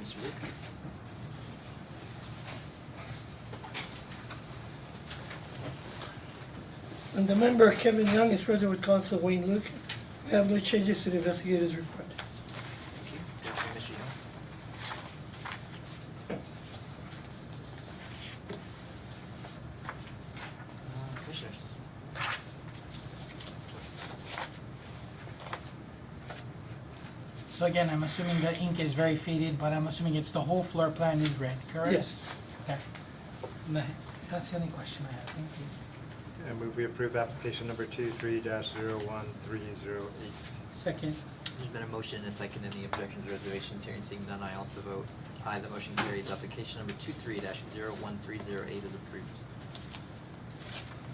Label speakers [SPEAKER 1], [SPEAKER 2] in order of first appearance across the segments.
[SPEAKER 1] this week.
[SPEAKER 2] And the member Kevin Young is present with counsel Wayne Luke. We have no changes to the investigators report.
[SPEAKER 1] Thank you. Thank you, Mr. Young. Uh, Commissioners.
[SPEAKER 3] So again, I'm assuming the ink is very faded, but I'm assuming it's the whole floor plan is red, correct?
[SPEAKER 2] Yes.
[SPEAKER 3] Okay. No, That's the only question I have, thank you.
[SPEAKER 4] I move we approve application number two three dash zero one three zero eight.
[SPEAKER 3] Second,
[SPEAKER 1] There's been a motion and a second. Any objections, reservations, hearing seeing none, I also vote aye. The motion carries. Application number two-three dash zero-one-three-zero-eight is approved.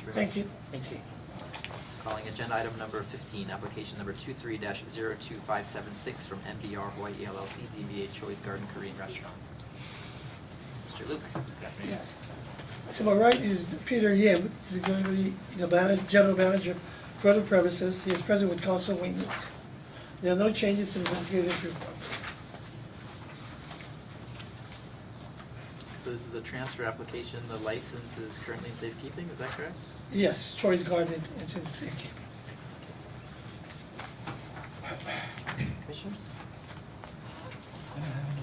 [SPEAKER 1] very
[SPEAKER 2] Thank
[SPEAKER 1] much.
[SPEAKER 2] you. Thank you.
[SPEAKER 1] Calling agenda item number fifteen, application number two-three dash zero-two-five-seven-six from MBR Hawaii E LLC, DBA Choi's Garden Korean Restaurant. Mr. Luke. Good afternoon.
[SPEAKER 2] Yes. To my right is Peter Yeh, he's going to be the manager, general manager for the premises. He is present with counsel Wayne Luke. There are no changes to the investigators report.
[SPEAKER 1] So this is a transfer application. The license is currently in safekeeping, is that correct?
[SPEAKER 2] Yes, Troy's Garden, it's in safekeeping.
[SPEAKER 1] Commissioners?
[SPEAKER 3] I don't have any questions.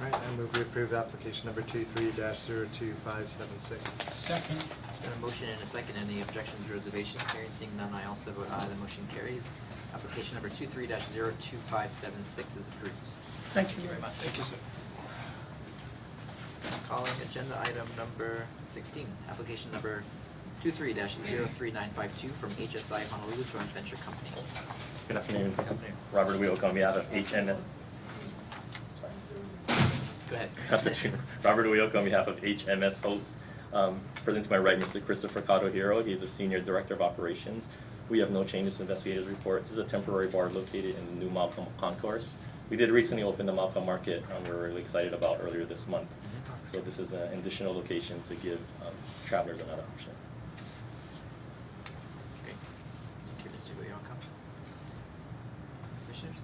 [SPEAKER 4] All right, I move we approve application number two three dash zero two five seven six.
[SPEAKER 3] Second,
[SPEAKER 1] Got a motion and a second. Any objections, reservations? Hearing seeing none, I also vote aye. The motion carries. Application number two-three dash zero-two-five-seven-six is approved.
[SPEAKER 2] Thank you very much.
[SPEAKER 1] Thank you, sir. Calling agenda item number sixteen, application number two-three dash zero-three-nine-five-two from HSI Honolulu Joint Venture Company.
[SPEAKER 5] Good afternoon.
[SPEAKER 1] Good afternoon.
[SPEAKER 5] Robert Wilk on behalf of HN,
[SPEAKER 1] Go ahead.
[SPEAKER 5] afternoon. Robert Wilk on behalf of HMS Hosts. Um, Present to my right, Mr. Christopher Cotto Hiro. He is the Senior Director of Operations. We have no changes to investigators report. This is a temporary bar located in the new Malcolm Concourse. We did recently open the Malcolm Market, um, we were really excited about earlier this month. So this is an additional location to give um, travelers another option.
[SPEAKER 1] Great. Thank you, Mr. Uyoka. Commissioners?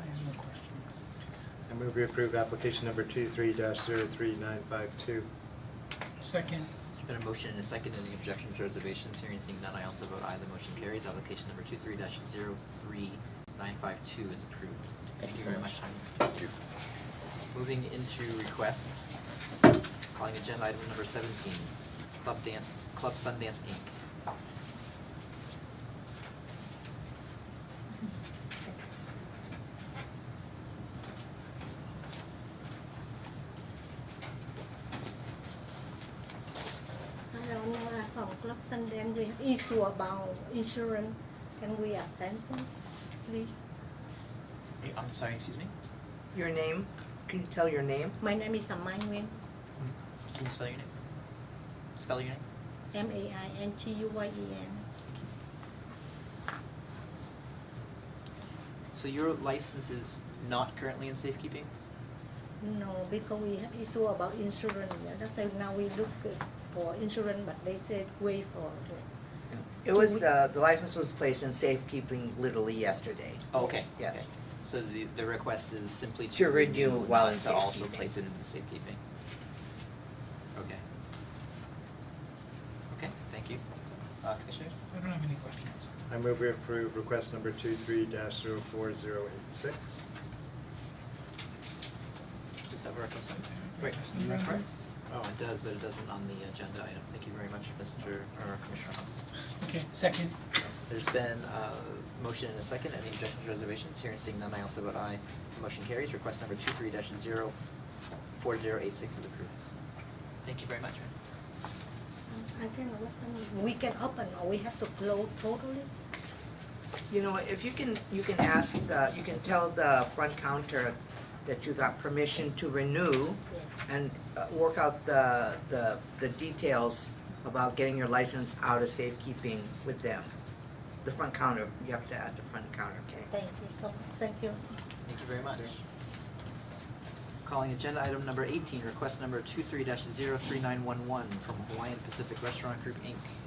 [SPEAKER 3] I have no questions.
[SPEAKER 4] I move we approve application number two three dash zero three nine five two.
[SPEAKER 3] Second,
[SPEAKER 1] There's been a motion and a second. Any objections, reservations? Hearing seeing none, I also vote aye. The motion carries. Application number two-three dash zero-three-nine-five-two is approved.
[SPEAKER 5] Thank you so
[SPEAKER 1] very
[SPEAKER 5] much.
[SPEAKER 1] Thank you. Moving into requests, calling agenda item number seventeen, Club Dan, Club Sundance Inc.
[SPEAKER 6] Hello, Nora from Club Sundance. We have issue about insurance. Can we attend some, please?
[SPEAKER 1] Hey, I'm sorry, excuse me?
[SPEAKER 7] Your name? Can you tell your name?
[SPEAKER 6] My name is Amai Nguyen,
[SPEAKER 1] Hmm? Can you spell your name? Spell your name?
[SPEAKER 6] M A I N G U Y E N.
[SPEAKER 1] So your license is not currently in safekeeping?
[SPEAKER 6] No, because we have issue about insurance. Yeah, That's why now we look uh, for insurance, but they said wait for like,
[SPEAKER 7] It was, uh, the license was placed in safekeeping literally yesterday.
[SPEAKER 1] Oh, Okay. okay.
[SPEAKER 7] Yes.
[SPEAKER 1] So the, the request is simply to
[SPEAKER 7] To renew
[SPEAKER 1] renew,
[SPEAKER 7] while
[SPEAKER 1] not
[SPEAKER 7] in
[SPEAKER 1] to also
[SPEAKER 7] safekeeping.
[SPEAKER 1] place it in the safekeeping. Okay. Okay, thank you. Uh, commissioners?
[SPEAKER 3] I don't have any questions.
[SPEAKER 4] I move we approve request number two three dash zero four zero eight six.
[SPEAKER 1] Does that work?
[SPEAKER 3] Wait,
[SPEAKER 1] Is that correct? Oh, it does, but it doesn't on the agenda item. Thank you very much, Mr. or Commissioner Hung.
[SPEAKER 3] Okay, second,
[SPEAKER 1] There's been a motion and a second. Any objections, reservations? Hearing seeing none, I also vote aye. Motion carries. Request number two-three dash zero four zero eight six is approved. Thank you very much.
[SPEAKER 6] Mm, I can, what's the name? We can open or we have to close totally?
[SPEAKER 7] You know, what, if you can, you can ask, the you can tell the front counter that you got permission to renew
[SPEAKER 6] Yes.
[SPEAKER 7] and uh, work out the, the, the details about getting your license out of safekeeping with them. The front counter, you have to ask the front counter, okay?
[SPEAKER 6] Thank you so much. Thank you.
[SPEAKER 1] Thank you very much. Calling agenda item number eighteen, request number two-three dash zero three nine one one from Hawaiian Pacific Restaurant Group, Inc.